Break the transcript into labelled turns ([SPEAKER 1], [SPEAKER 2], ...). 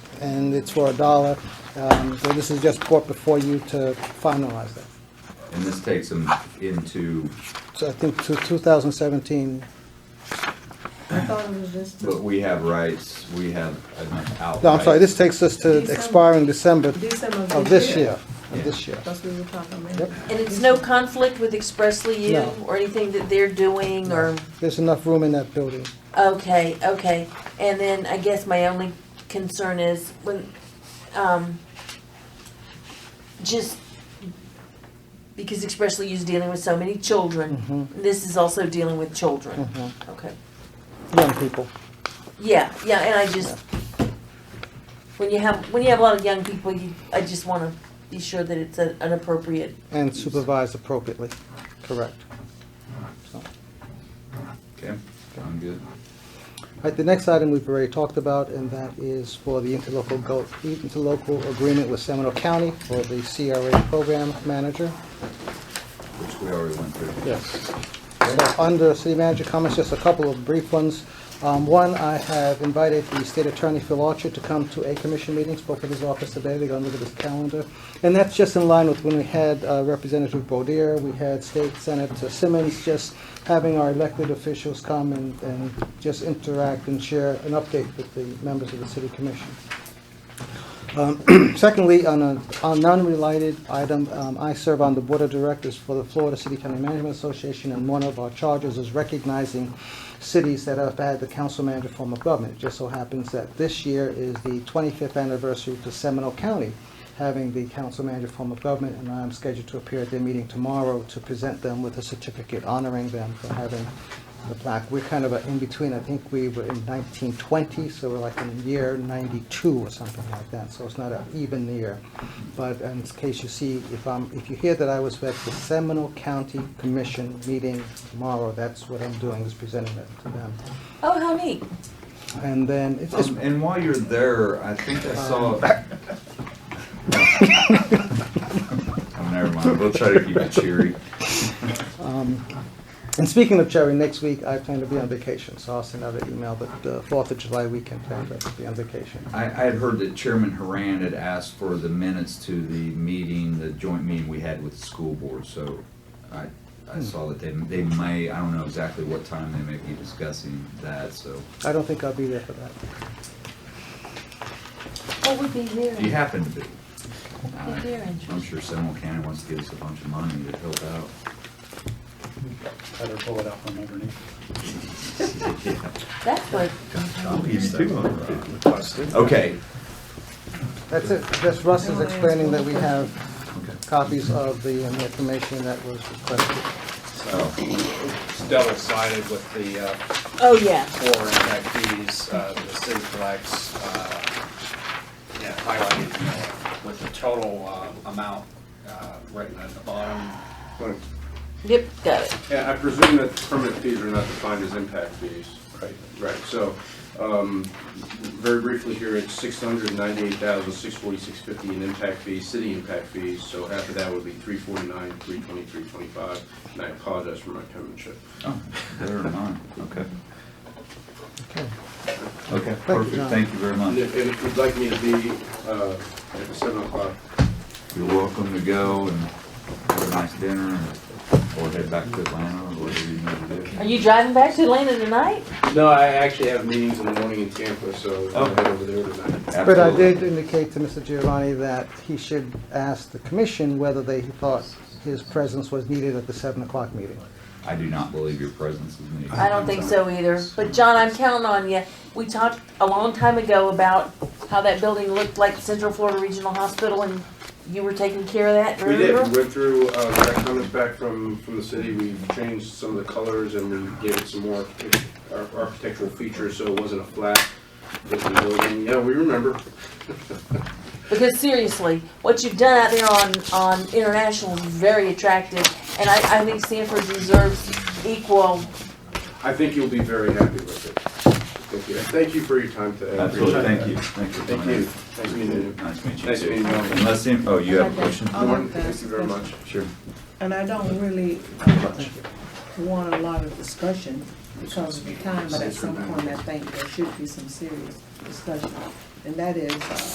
[SPEAKER 1] and it's for a dollar. Um, So this is just brought before you to finalize that.
[SPEAKER 2] And this takes them into,
[SPEAKER 1] So I think to 2017,
[SPEAKER 3] I thought it was just
[SPEAKER 2] but we have rights, we have an outright.
[SPEAKER 1] no, I'm sorry, this takes us to
[SPEAKER 3] December.
[SPEAKER 1] expiring December
[SPEAKER 3] December
[SPEAKER 1] of oh, this year, of
[SPEAKER 2] Yeah.
[SPEAKER 1] this year.
[SPEAKER 3] That's what we were talking about.
[SPEAKER 1] Yep.
[SPEAKER 4] And it's no conflict with expressly you
[SPEAKER 1] No.
[SPEAKER 4] or anything that they're doing or,
[SPEAKER 1] There's enough room in that building.
[SPEAKER 4] okay, okay. And then I guess my only concern is when, um, just because expressly is dealing with so many children,
[SPEAKER 1] Mhm.
[SPEAKER 4] this is also dealing with children.
[SPEAKER 1] Mhm.
[SPEAKER 4] Okay.
[SPEAKER 1] Young people.
[SPEAKER 4] Yeah, yeah, and I just, when you have, when you have a lot of young people, you, I just wanna be sure that it's a- an appropriate
[SPEAKER 1] And supervised appropriately, correct. So,
[SPEAKER 2] Okay, sound good.
[SPEAKER 1] All right, the next item we've already talked about, and that is for the interlocal, go- interlocal agreement with Seminole County for the CRA program manager.
[SPEAKER 2] Which we already went through.
[SPEAKER 1] Yes. So under city manager comments, just a couple of brief ones. Um, One, I have invited the state attorney Phil Archer to come to a commission meeting, spoke at his office today, they're gonna look at his calendar. And that's just in line with when we had uh, Representative Bodier, we had State Senator Simmons, just having our elected officials come and, and just interact and share an update with the members of the city commission. Um, Secondly, on a, on a non-related item, um, I serve on the Board of Directors for the Florida City County Management Association, and one of our charges is recognizing cities that have had the council manager form of government. It just so happens that this year is the 25th anniversary to Seminole County having the council manager form of government, and I'm scheduled to appear at their meeting tomorrow to present them with a certificate honoring them for having the plaque. We're kind of a- in between, I think we were in 1920, so we're like in year 92 or something like that, so it's not an even year. But in case you see, if I'm, if you hear that I was at the Seminole County Commission meeting tomorrow, that's what I'm doing, is presenting it to them.
[SPEAKER 4] Oh, how neat.
[SPEAKER 1] And then, it's just,
[SPEAKER 2] Um, And while you're there, I think I saw.
[SPEAKER 1] Um,
[SPEAKER 2] Oh, Never mind, we'll try to keep it cheery.
[SPEAKER 1] um, and speaking of Cherry, next week I plan to be on vacation, so I'll send out an email, but the 4th of July weekend plan to be on vacation.
[SPEAKER 2] I, I had heard that Chairman Haran had asked for the minutes to the meeting, the joint meeting we had with the school board, so I, I
[SPEAKER 1] Hmm.
[SPEAKER 2] saw that they, they may, I don't know exactly what time they may be discussing that, so.
[SPEAKER 1] I don't think I'll be there for that.
[SPEAKER 4] What would be here?
[SPEAKER 2] If you happen to be.
[SPEAKER 4] Be here, interesting.
[SPEAKER 2] I'm sure Seminole County wants to give us a bunch of money to help out.
[SPEAKER 5] Better pull it out from underneath.
[SPEAKER 4] That's what,
[SPEAKER 2] uh, Okay,
[SPEAKER 1] That's it. Just Russ is explaining that we have copies of the um, information that was requested.
[SPEAKER 2] oh,
[SPEAKER 5] It's double sided with the uh,
[SPEAKER 4] oh, yeah.
[SPEAKER 5] four inductees, uh, the city collects, uh, yeah, highlighted you know, with the total uh, amount uh, written at the bottom.
[SPEAKER 6] Right.
[SPEAKER 4] Yep, got it.
[SPEAKER 6] Yeah, I presume that permit fees are not defined as impact fees. Right. Right, so, um, very briefly here, it's six hundred ninety-eight thousand, six forty-six fifty in impact fees, city impact fees, so half of that would be three forty-nine, three twenty, three twenty-five, and I apologize for my penmanship.
[SPEAKER 2] oh, better than mine, okay.
[SPEAKER 1] Okay.
[SPEAKER 2] Okay,
[SPEAKER 1] you,
[SPEAKER 2] perfect,
[SPEAKER 1] John.
[SPEAKER 2] thank you very
[SPEAKER 6] And
[SPEAKER 2] much.
[SPEAKER 6] if and if you'd like me to be, uh, at the seven o'clock,
[SPEAKER 2] You're welcome to go and have a nice dinner and, or head back to Atlanta or whatever you need to
[SPEAKER 4] Are
[SPEAKER 2] do.
[SPEAKER 4] you driving back to Atlanta tonight?
[SPEAKER 6] no, I actually have meetings in the morning in Tampa, so I'll head over there tonight.
[SPEAKER 1] But I did
[SPEAKER 2] Absolutely.
[SPEAKER 1] indicate to Mr. Giovanni that he should ask the commission whether they thought his presence was needed at the 7 o'clock meeting.
[SPEAKER 2] I do not believe your presence is needed.
[SPEAKER 4] I don't think so either. But John, I'm counting on you. We talked a long time ago about how that building looked like Central Florida Regional Hospital and you were taking care of that,
[SPEAKER 6] We did,
[SPEAKER 4] remember?
[SPEAKER 6] we went through, uh, we got comments back from, from the city, we changed some of the colors and we gave it some more arch- ar- architectural features, so it wasn't a flat looking building, yeah, we remember.
[SPEAKER 4] Because seriously, what you've done out there on, on International is very attractive. And I, I think Sanford deserves equal.
[SPEAKER 6] I think you'll be very happy with it. Thank you, And thank you for your time today. I
[SPEAKER 2] Absolutely,
[SPEAKER 6] appreciate
[SPEAKER 2] thank you,
[SPEAKER 6] that.
[SPEAKER 2] thank you.
[SPEAKER 6] Thank you, nice meeting you.
[SPEAKER 2] Nice to meet you.
[SPEAKER 6] Nice
[SPEAKER 2] too.
[SPEAKER 6] meeting you.
[SPEAKER 2] Unless, any- oh, you have a question?
[SPEAKER 3] I'll
[SPEAKER 6] Lauren,
[SPEAKER 3] have to
[SPEAKER 6] Thank
[SPEAKER 3] ask
[SPEAKER 6] you very
[SPEAKER 3] a
[SPEAKER 6] much.
[SPEAKER 2] Sure.
[SPEAKER 3] And I don't really uh, want a lot of discussion because of the time, but at some point, I think there should be some serious discussion. And that is, uh,